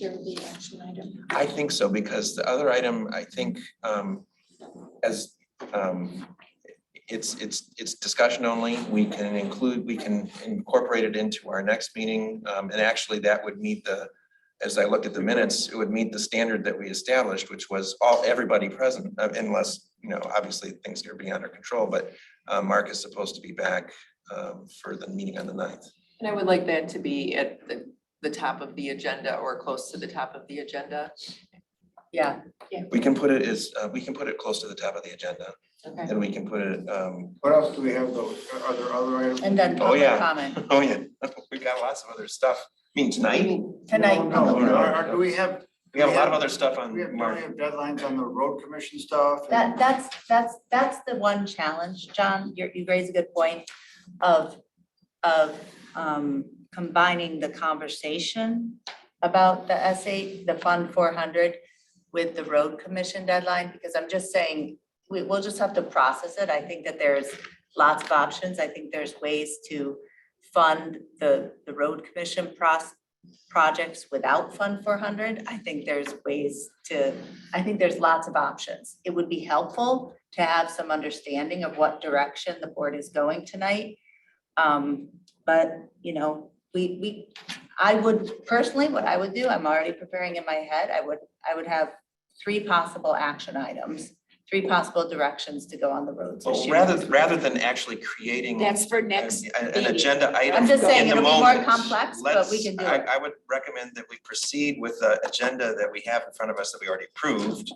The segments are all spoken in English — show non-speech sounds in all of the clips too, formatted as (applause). there will be action item. I think so, because the other item, I think, um, as, um, it's, it's, it's discussion only. We can include, we can incorporate it into our next meeting. Um, and actually that would meet the, as I looked at the minutes, it would meet the standard that we established, which was all, everybody present, uh, unless, you know, obviously things are beyond our control, but, uh, Mark is supposed to be back, um, for the meeting on the ninth. And I would like that to be at the, the top of the agenda or close to the top of the agenda. Yeah, We can put it as, uh, we can put it close to the top of the agenda okay. and we can put it, um, What else do we have though? Are- Are there other items? And then Oh, public yeah. comment Oh, yeah, (laughs) we got lots of other stuff. I mean, tonight, tonight. No, public comment. no, are- are- do we have, we have a lot of other stuff on we have, don't we Mark. have deadlines on the road commission stuff? and- That, that's, that's, that's the one challenge, John, you, you raise a good point of, of, um, combining the conversation about the S eight, the Fund four hundred with the road commission deadline, because I'm just saying, we, we'll just have to process it. I think that there's lots of options. I think there's ways to fund the, the road commission pros, projects without Fund four hundred. I think there's ways to I think there's lots of options. It would be helpful to have some understanding of what direction the board is going tonight. Um, but, you know, we, we, I would personally, what I would do, I'm already preparing in my head, I would, I would have three possible action items, three possible directions to go on the roads this Well, year. rather, rather than actually creating an, That's for next an meeting. agenda item I'm in the just saying moment. it'll be more complex, but we let's- can do I- it. I would recommend that we proceed with the agenda that we have in front of us that we already approved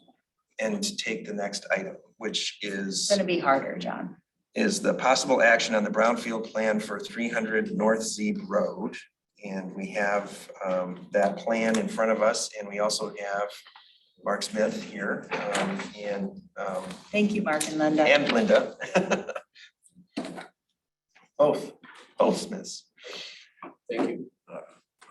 and to take the next item, which It's is, gonna be harder, John. is the possible action on the brownfield plan for three hundred North Zeeb Road. And we have um, that plan in front of us, and we also have Mark Smith here um, and um, Thank you, Mark and Linda. and Linda. (laughs) Both, both Smiths. Thank you. Uh,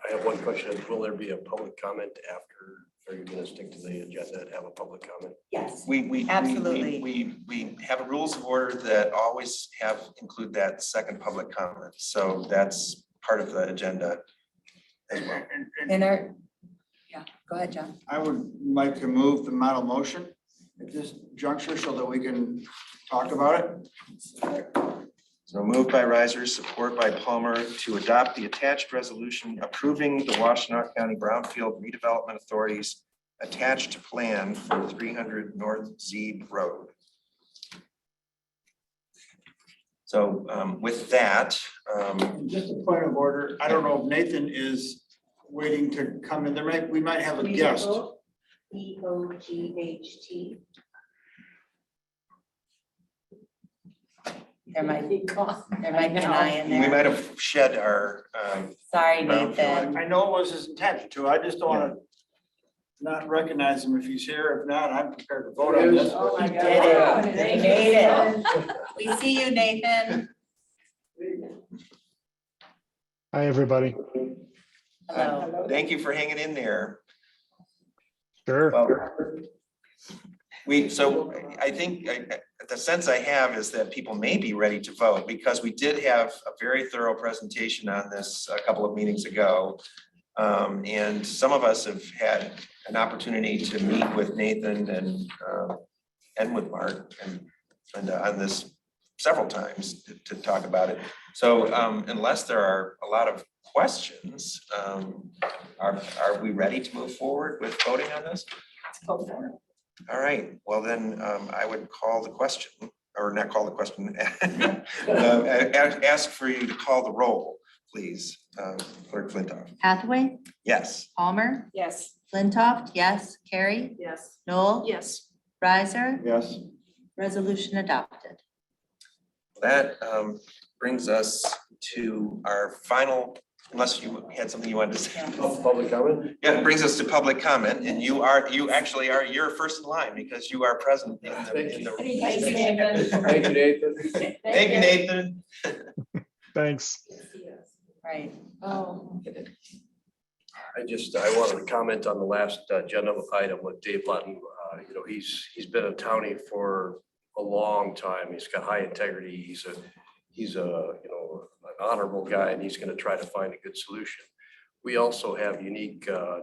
I have one question. Will there be a public comment after, are you gonna stick to the agenda and have a public comment? Yes. We, we- we, we. Absolutely. We, we have rules of order that always have, include that second public comment. So that's part of the agenda as well. and- and And our, yeah, go ahead, John. I would like to move the model motion at this juncture so that we can talk about it. So moved by Riser, support by Palmer to adopt the attached resolution approving the Washtenaw County Brownfield Redevelopment Authority's attached plan for three hundred North Zeeb Road. So um, with that, um, Just a point of order, I don't know if Nathan is waiting to come in, there might, we might have a guest. E O G H T. There might be cost. There might be an eye in we there. might have shed our, um, Sorry, Brown Nathan. I know it was his intention to, I just don't wanna not recognize him if he's here, if not, I'm prepared to vote on this. Oh, my Did it. God. You made it. We see you, Nathan. Hi, everybody. Hello. thank you for hanging in there. Sure. Well, We, so I think, I, I- the sense I have is that people may be ready to vote because we did have a very thorough presentation on this a couple of meetings ago. Um, and some of us have had an opportunity to meet with Nathan and, um, and with Mark and, and on this several times to, to talk about it. So, um, unless there are a lot of questions, um, are, are we ready to move forward with voting on this? All right, well then, um, I would call the question, or not call the question. (laughs) uh, a- Ask for you to call the roll, please, Um, Clerk Flintoff. Hathaway, Yes, Palmer, Yes. Flintoff, yes, Carrie, Yes. Noel, Yes. Riser, Yes. resolution adopted. that um, brings us to our final, unless you had something you wanted to say. Public comment? Yeah, it brings us to public comment, and you are, you actually are, you're first in line because you are present in the, in the. Thank you, Nathan. Thank you, Nathan. Thanks. Right. Oh. I just, I wanted to comment on the last uh, agenda item with Dave Lutton. Uh, You know, he's, he's been a townie for a long time. He's got high integrity. He's a, he's a, you know, an honorable guy and he's going to try to find a good solution. We also have unique uh,